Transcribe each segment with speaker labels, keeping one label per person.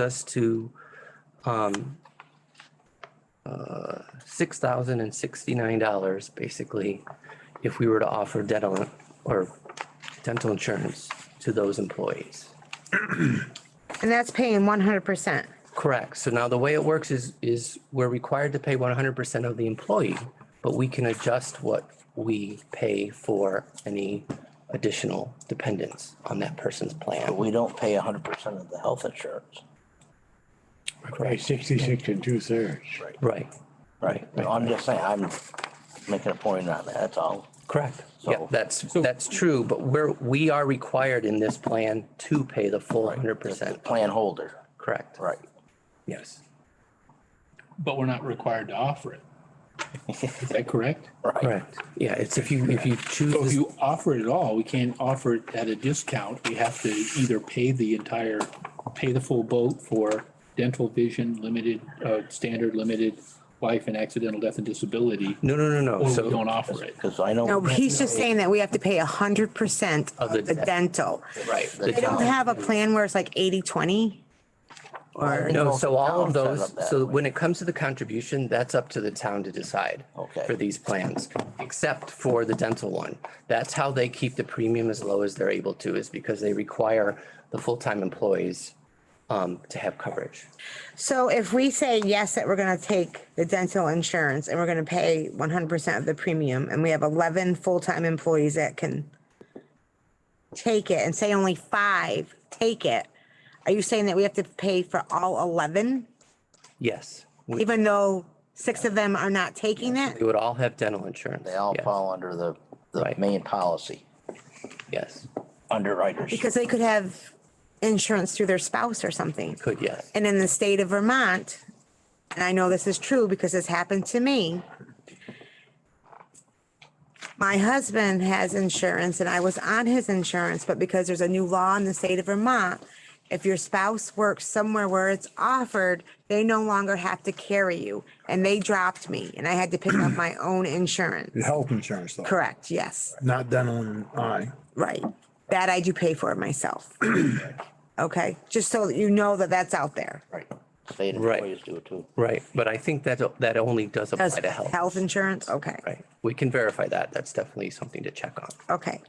Speaker 1: us to um, uh, $6,069, basically, if we were to offer dental or dental insurance to those employees.
Speaker 2: And that's paying one hundred percent.
Speaker 1: Correct. So now the way it works is, is we're required to pay one hundred percent of the employee, but we can adjust what we pay for any additional dependents on that person's
Speaker 3: But
Speaker 1: plan.
Speaker 3: we don't pay hundred percent of the health insurance.
Speaker 4: I pay sixty-six and two-thirds.
Speaker 1: Right,
Speaker 3: Right. I'm just saying, I'm making a point on that, that's all.
Speaker 1: correct. Yeah,
Speaker 3: So-
Speaker 1: that's, that's true, but we're, we are required in this plan to pay the full hundred
Speaker 3: The
Speaker 1: percent.
Speaker 3: Plan holder,
Speaker 1: Correct.
Speaker 3: right.
Speaker 1: Yes.
Speaker 5: But we're not required to offer it. Is that correct?
Speaker 1: Correct. Yeah, it's if you, if you
Speaker 5: So if
Speaker 1: choose,
Speaker 5: you offer it all, we can't offer it at a discount. We have to either pay the entire, pay the full boat for dental, vision, limited, uh, standard, limited life and accidental death and disability,
Speaker 1: no, no, no, no.
Speaker 5: or we don't
Speaker 1: So,
Speaker 5: offer it.
Speaker 3: Cause I know.
Speaker 2: No, he's just saying that we have to pay hundred percent of
Speaker 1: Of the
Speaker 2: the
Speaker 1: debt.
Speaker 2: dental.
Speaker 1: right. the
Speaker 2: They don't
Speaker 1: town-
Speaker 2: have a plan where it's like 80-20.
Speaker 3: I think
Speaker 1: No,
Speaker 3: most
Speaker 1: so all of
Speaker 3: towns set
Speaker 1: those,
Speaker 3: up that
Speaker 1: so
Speaker 3: way.
Speaker 1: when it comes to the contribution, that's up to the town to decide.
Speaker 3: Okay.
Speaker 1: For these plans, except for the dental one. That's how they keep the premium as low as they're able to, is because they require the full-time employees um, to have coverage.
Speaker 2: So if we say yes, that we're gonna take the dental insurance and we're gonna pay one hundred percent of the premium and we have eleven full-time employees that can take it and say only five take it, are you saying that we have to pay for all eleven,
Speaker 1: Yes, we
Speaker 2: even though six of them are not taking
Speaker 1: we
Speaker 2: it?
Speaker 1: would all have dental insurance.
Speaker 3: They all
Speaker 1: Yes,
Speaker 3: fall under the, the
Speaker 1: Right.
Speaker 3: main policy,
Speaker 1: Yes,
Speaker 3: underwriters.
Speaker 2: Because they could have insurance through their spouse or something.
Speaker 1: could, yes.
Speaker 2: And in the state of Vermont, and I know this is true because this happened to me. My husband has insurance and I was on his insurance, but because there's a new law in the state of Vermont, if your spouse works somewhere where it's offered, they no longer have to carry you. And they dropped me and I had to pick up my own insurance.
Speaker 6: The health insurance though,
Speaker 2: Correct, yes,
Speaker 6: not dental and
Speaker 4: uh,
Speaker 6: eye.
Speaker 2: right. That I do pay for myself. Okay, just so that you know that that's out there.
Speaker 3: Right. State
Speaker 1: Right.
Speaker 3: employees do it too.
Speaker 1: Right, but I think that, that only does apply
Speaker 2: Does
Speaker 1: to health.
Speaker 2: health insurance? Okay,
Speaker 1: Right, we can verify that. That's definitely something to check on.
Speaker 2: okay.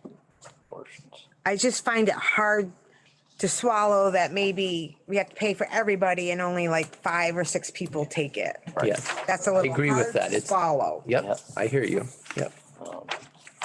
Speaker 3: portions.
Speaker 2: I just find it hard to swallow that maybe we have to pay for everybody and only like five or six people take it.
Speaker 1: Yes.
Speaker 2: That's a little
Speaker 1: agree with
Speaker 2: hard
Speaker 1: that.
Speaker 2: to
Speaker 1: It's-
Speaker 2: swallow.
Speaker 1: Yep,
Speaker 3: Yep. Um,
Speaker 1: I hear you. Yep.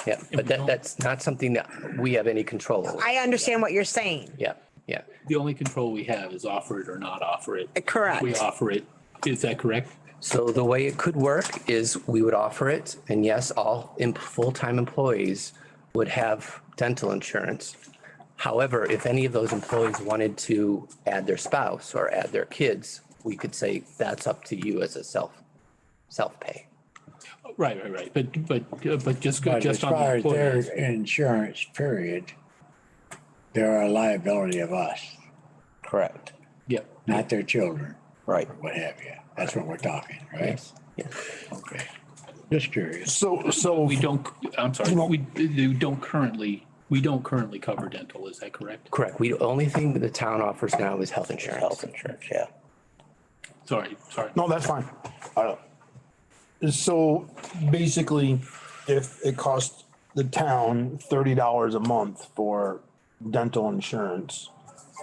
Speaker 1: Yeah, but that, that's not something that we have any control over.
Speaker 2: I understand what you're saying.
Speaker 1: Yeah, yeah.
Speaker 5: The only control we have is offer it or not offer it.
Speaker 2: Correct.
Speaker 5: We offer it. Is that correct?
Speaker 1: So the way it could work is we would offer it and yes, all em- full-time employees would have dental insurance. However, if any of those employees wanted to add their spouse or add their kids, we could say that's up to you as a self, self-pay.
Speaker 5: Right, right, right. But, but, uh, but just, go-
Speaker 4: But as
Speaker 5: just on the
Speaker 4: far as their
Speaker 5: employees.
Speaker 4: insurance period, they're a liability of us,
Speaker 3: Correct,
Speaker 5: Yep.
Speaker 4: not their children,
Speaker 3: right.
Speaker 4: what have you. That's what we're talking, right?
Speaker 1: Yes.
Speaker 4: Okay. Just curious.
Speaker 6: So, so
Speaker 5: We don't, I'm sorry, we, we don't currently, we don't currently cover dental, is that correct?
Speaker 1: Correct. We, the only thing that the town offers now is health
Speaker 3: Health
Speaker 1: insurance.
Speaker 3: insurance, yeah.
Speaker 5: Sorry, sorry.
Speaker 6: No, that's fine. Uh, So basically, if it costs the town thirty dollars a month for dental insurance,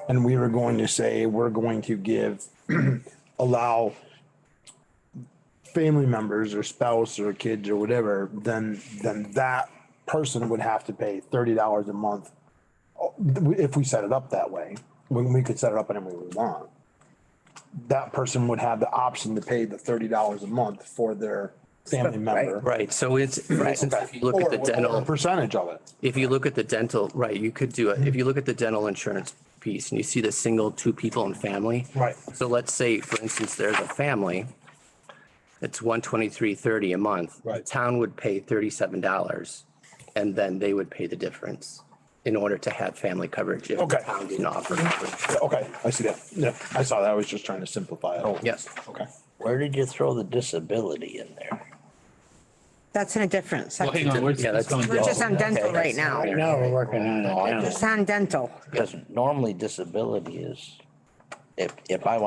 Speaker 6: and we were going to say, we're going to give, allow family members or spouse or kids or whatever, then, then that person would have to pay thirty dollars a month oh, if we set it up that way, when we could set it up any way we want that person would have the option to pay the thirty dollars a month for their family member.
Speaker 1: Right, so it's, for instance, if you look at the
Speaker 6: Or whatever
Speaker 1: dental.
Speaker 6: Percentage of it.
Speaker 1: If you look at the dental, right, you could do it. If you look at the dental insurance piece and you see the single two people and family.
Speaker 6: Right.
Speaker 1: So let's say, for instance, there's a family. It's one twenty-three thirty a month. The
Speaker 6: Right.
Speaker 1: Town would pay thirty-seven dollars and then they would pay the difference in order to have family coverage. if the
Speaker 6: Okay.
Speaker 1: Town didn't offer. coverage.
Speaker 6: Yeah, Okay, I see that. Yeah, I saw that. I was just trying to simplify it.
Speaker 1: Oh, Yes,
Speaker 6: Okay.
Speaker 3: Where did you throw the disability in there?
Speaker 2: That's in a different
Speaker 5: Well, hang
Speaker 2: section.
Speaker 5: on, we're
Speaker 1: Yeah,
Speaker 5: just
Speaker 1: that's-
Speaker 5: on
Speaker 2: We're just
Speaker 5: dental.
Speaker 2: on dental right
Speaker 4: Right
Speaker 2: now.
Speaker 4: now, we're working on it
Speaker 3: I
Speaker 4: now.
Speaker 2: Just on dental.
Speaker 3: Because normally disability is if, if I want